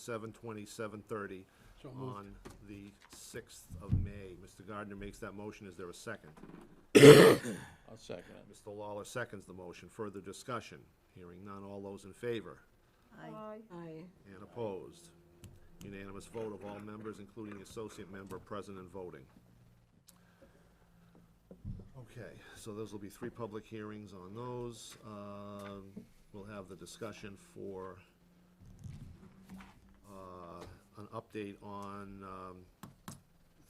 seven twenty, seven thirty So moved. on the sixth of May. Mr. Gardner makes that motion. Is there a second? I'll second it. Mr. Lawler seconds the motion. Further discussion? Hearing none. All those in favor? Aye. Aye. And opposed? Unanimous vote of all members, including the associate member present and voting. Okay, so those will be three public hearings on those. Um, We'll have the discussion for uh, an update on um,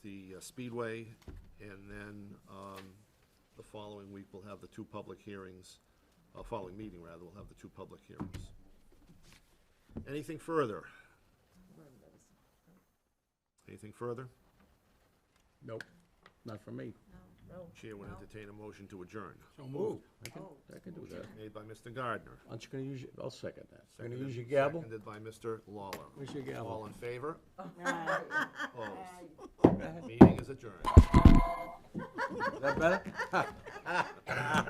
the uh, Speedway, and then um, the following week, we'll have the two public hearings, uh, following meeting, rather, we'll have the two public hearings. Anything further? Anything further? Nope, not for me. Chair would entertain a motion to adjourn, So moved. I can, Oh. I can do that. made by Mr. Gardner. Aren't you gonna use, your- I'll second that. You're gonna seconded- use your gavel? Seconded by Mr. Lawler. Where's your gavel? All in favor? Aye. Opposed? Meeting is adjourned. Is that better?